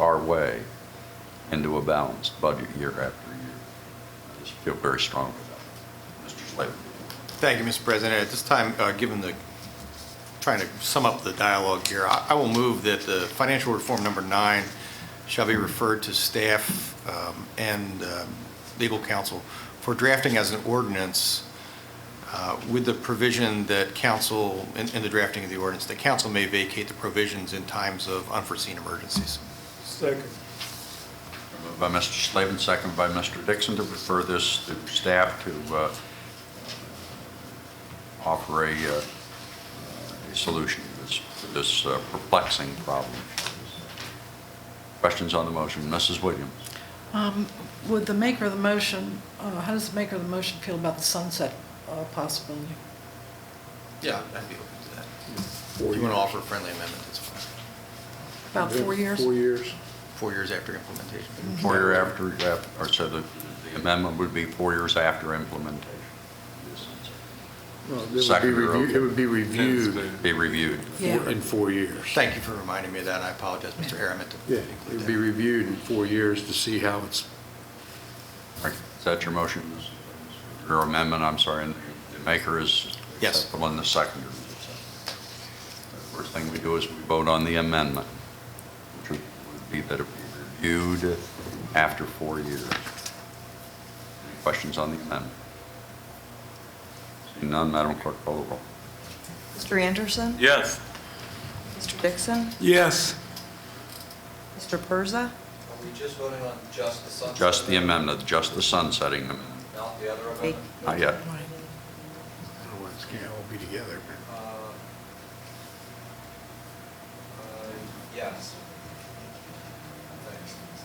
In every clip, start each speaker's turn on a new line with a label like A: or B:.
A: our way into a balanced budget year after year. I just feel very strongly about it. Mr. Slavin.
B: Thank you, Mr. President. At this time, uh, given the, trying to sum up the dialogue here, I I will move that the financial reform number nine shall be referred to staff um, and um, legal counsel for drafting as an ordinance uh, with the provision that council, in in the drafting of the ordinance, that council may vacate the provisions in times of unforeseen emergencies.
C: Second.
A: Moved by Mr. Slavin, second by Mr. Dixon, to refer this to staff to uh, offer a uh, a solution to this- to this uh, perplexing problem. Questions on the motion? Mrs. Williams?
D: Um, Would the maker of the motion, uh, how does the maker of the motion feel about the sunset uh, possibility?
B: Yeah, I'd be open to that. If you want to offer a friendly amendment, that's fine.
D: About four years?
C: Four years.
B: Four years after implementation.
A: Four year after, uh, or so the the amendment would be four years after implementation.
C: Well, it would be
A: Second or
C: reviewed-
A: okay?
C: It would be reviewed
A: Be reviewed.
D: Yeah.
C: in four years.
B: Thank you for reminding me of that, and I apologize, Mr. Hare, I meant
C: Yeah,
B: to
C: it
B: include
C: would be
B: that.
C: reviewed in four years to see how it's,
A: All right, Is that your motion? Your amendment, I'm sorry, and the maker is?
B: Yes.
A: is that The one, the second. First thing we do is we vote on the amendment, which would be that it be reviewed after four years. Any Questions on the amendment? Seeing none, Madam Clerk, call the roll.
E: Mr. Anderson?
F: Yes.
E: Mr. Dixon?
F: Yes.
E: Mr. Persa?
G: Are we just voting on just the sunset?
A: Just the amendment, just the sunsetting amendment.
G: Not the other
E: Hey.
G: amendment?
A: Not yet.
C: otherwise it can't all be together.
G: Uh, uh, Yes.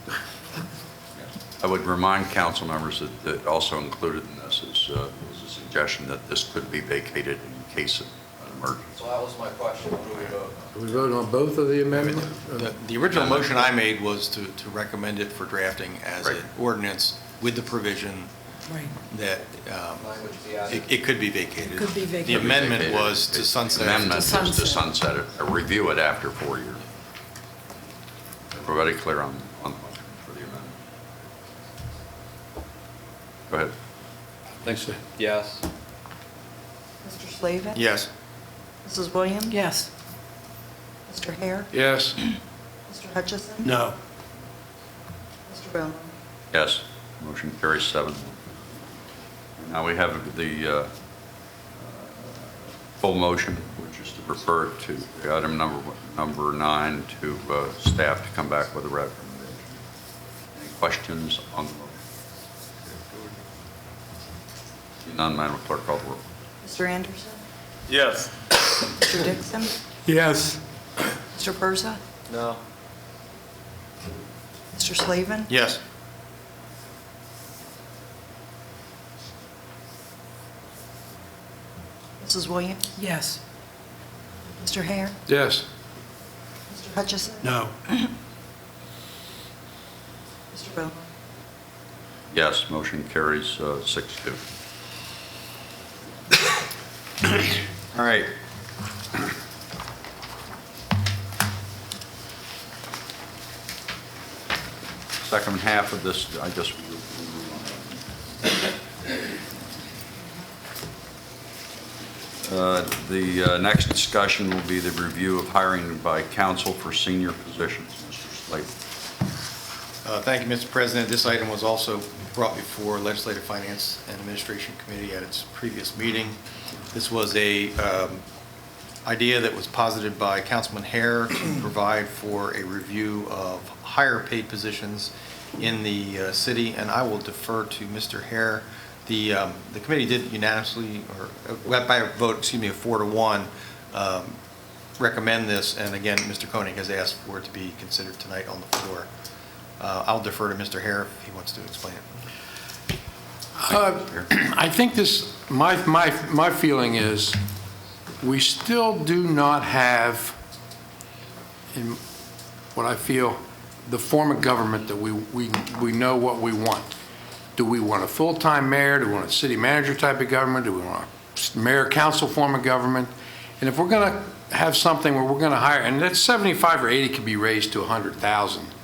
G: Thanks.
A: I would remind council members that, that also included in this is, uh, is a suggestion that this could be vacated in case of an emergency.
G: So that was my question, what do we vote on?
C: Do we vote on both of the amendments?
B: The- The original motion I made was to, to recommend it for drafting as
A: Right.
B: an ordinance with the provision
D: Right.
B: that um,
G: Language be
B: it,
G: added.
B: it could be vacated.
D: Could be
B: The
D: vacated.
B: amendment was to sunset.
A: Amendment is to
D: sunset.
A: sunset it, uh, review it after four years. Everybody clear on, on the motion for the amendment? Go ahead.
C: Thanks.
G: Yes.
E: Mr. Slavin?
B: Yes.
E: Mrs. Williams?
D: Yes.
E: Mr. Hare?
C: Yes.
E: Mr. Hutchison?
F: No.
E: Mr. Bowman?
A: Yes, motion carries seven. Now we have the uh, full motion, which is to refer to item number, number nine to uh, staff to come back with a recommendation. Any questions on the motion? Seeing None, Madam Clerk, call the roll.
E: Mr. Anderson?
F: Yes.
E: Mr. Dixon?
F: Yes.
E: Mr. Persa?
G: No.
E: Mr. Slavin?
B: Yes.
E: Mrs. Williams?
D: Yes.
E: Mr. Hare?
C: Yes.
E: Mr. Hutchison?
F: No.
E: Mr. Bowman?
A: Yes, motion carries uh, six two.
B: All right.
A: Second half of this, I guess we Uh, The uh, next discussion will be the review of hiring by council for senior positions. Mr. Slate,
B: Uh, Thank you, Mr. President. This item was also brought before Legislative Finance and Administration Committee at its previous meeting. This was a um, idea that was posited by Councilman Hare to provide for a review of higher-paid positions in the uh, city, and I will defer to Mr. Hare. The, um, the committee did unanimously, or uh, by a vote, excuse me, of four to one, um, recommend this, and again, Mr. Koenig has asked for it to be considered tonight on the floor. Uh, I'll defer to Mr. Hare if he wants to explain it.
C: I think this, my, my, my feeling is, we still do not have, in what I feel, the form of government that we, we, we know what we want. Do we want a full-time mayor? Do we want a city manager type of government? Do we want a mayor-council form of government? And if we're going to have something where we're going to hire, and that 75 or 80 could be raised to 100,000,